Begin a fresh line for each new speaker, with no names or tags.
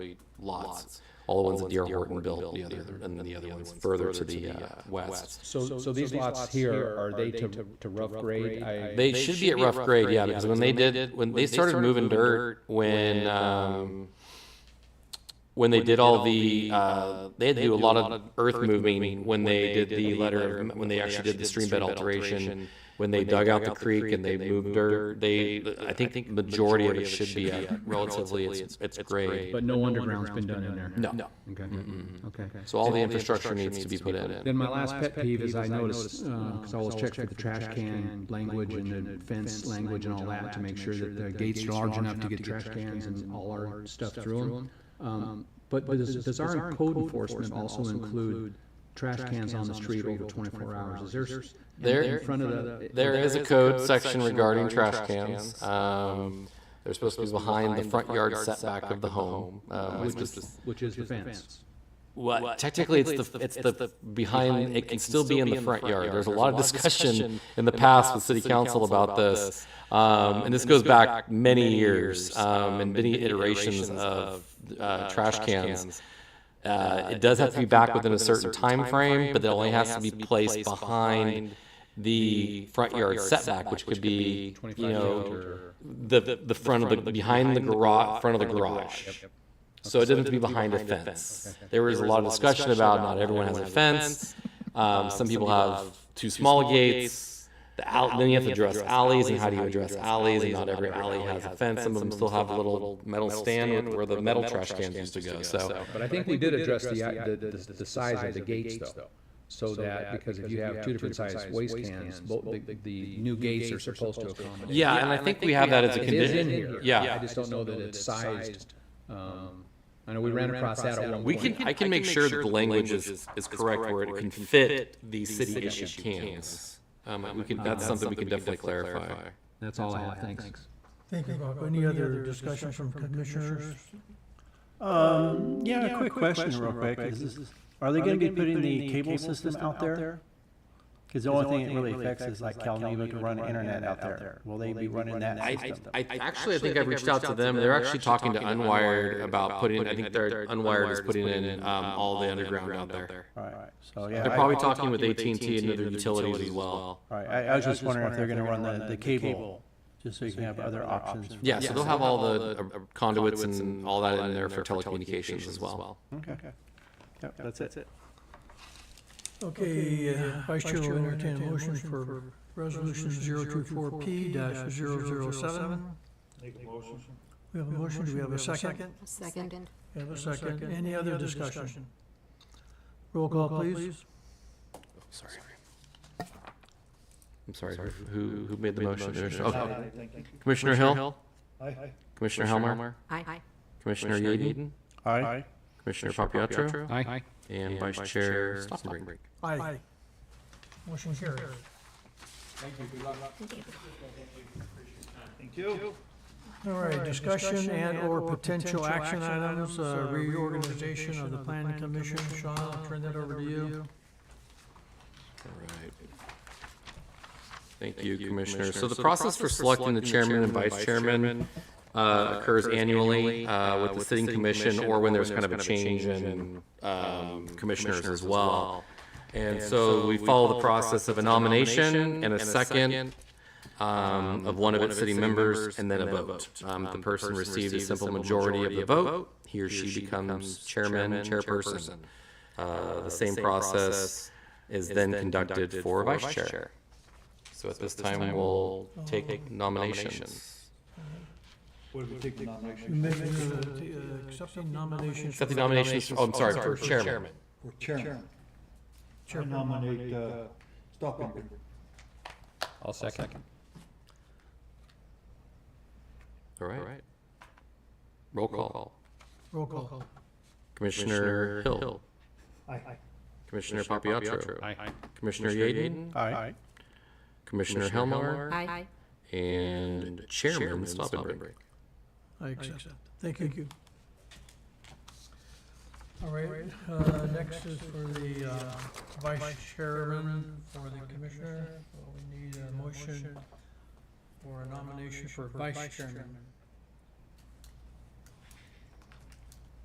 lots. All the ones that D.R. Horton built, the other, and the other ones further to the uh, west.
So, so these lots here, are they to, to rough grade? I-
They should be at rough grade, yeah, because when they did, when they started moving dirt, when, um, when they did all the, uh, they had to do a lot of earth moving when they did the letter, of- when they actually did the stream bed alteration, when they dug out the creek and they moved dirt, they, I think the majority of it should be at relatively, it's, it's grade.
But no underground's been done in there?
No.
Okay, okay.
So all the infrastructure needs to be put in.
Then my last pet peeve is I noticed, because I always check for the trash can language and the fence language and all that to make sure that the gates are large enough to get trash cans and all our stuff through them. But but does, does our code enforcement also include trash cans on the street over twenty-four hours? Is there, s- in-
There-
in front of the?
There is a code section regarding trash cans. Um, they're supposed to be behind the front yard setback of the home, uh, which is,
Which is the fence.
well, technically, it's the, it's the, behind, it can still be in the front yard. There's a lot of discussion in the past with city council about this. Um, and this goes back many years, um, and many iterations of, uh, trash cans. Uh, it does have to be back within a certain time frame, but it only has to be placed behind the front yard setback, which could be, you know, the, the front of the, behind the garage, front of the garage. So it doesn't have to be behind a fence. There was a lot of discussion about not everyone has a fence. Um, some people have too small gates. The out, then you have to address alleys and how do you address alleys? And not every alley has a fence. Some of them still have a little metal stand with where the metal trash cans used to go, so.
But I think we did address the, the, the, the size of the gates though. So that, because if you have two different sized waste cans, both, the, the new gates are supposed to accommodate.
Yeah, and I think we have that as a
It is in
condition.
here.
Yeah.
I just don't know that it's sized. um, I know we ran across that at one point.
We can, I can make sure that the language is, is correct where it can fit the city issued cans. Um, we can, that's something we can definitely clarify.
That's all I have, thanks.
Thank you, Bob. Any other discussion from commissioners?
Yeah, a quick question real quick. Is this, are they gonna be putting the cable system out there? Cause the only thing it really affects is like Calneva can run internet out there. Will they be running that
I,
system?
I, actually, I think I've reached out to them. They're actually talking to Unwired about putting, I think they're, Unwired is putting in, um, all the underground out there.
Alright, so yeah.
They're
I-
probably talking with AT&T and other utilities as well.
Alright, I, I was just wondering if they're gonna run the, the cable, just so you can have other options.
Yeah, so they'll have all the uh, conduits and all that in there for telecommunications as well.
Okay. Yep, that's it.
Okay, uh, Vice Chair will entertain a motion for Resolution 024P-007. We have a motion, do we have a second?
Second.
We have a second. Any other discussion? Roll call, please.
Sorry. I'm sorry, who, who made the motion? Okay. Commissioner Hill? Commissioner Helmer?
Aye.
Commissioner Yaden?
Alright,
Commissioner Papietro?
Aye.
And Vice Chair Stoppenbrink?
Aye. Motion carried. All right, discussion and/or potential action items, uh, reorganization of the planning commission. Sean, I'll turn that over to you.
All right. Thank you, Commissioner. So the process for selecting the chairman and vice chairman uh, occurs annually uh, with the sitting commission or when there's kind of a change in um, commissioners as well. And so we follow the process of a nomination and a second um, of one of its city members and then a vote. Um, if The person receives a simple majority of the vote, he or she becomes chairman, chairperson. Uh, The same process is then conducted for vice chair. So at this time, we'll take nominations.
You make, uh, t- uh, Accepting nominations.
Accept the nominations, oh, I'm sorry, for chairman.
For chairman, I
Chairman.
nominate uh, Stockenberg.
I'll second.
All right. Roll call.
Roll call.
Commissioner Hill.
Aye.
Commissioner Papiatro.
Aye.
Commissioner Yaden.
alright.
Commissioner Helmer.
Aye.
And Chairman Stoppenbrink.
I accept. Thank you. All right, uh, next is for the, uh, vice chairman for the commissioner. Well, We need a motion for a nomination for vice chairman.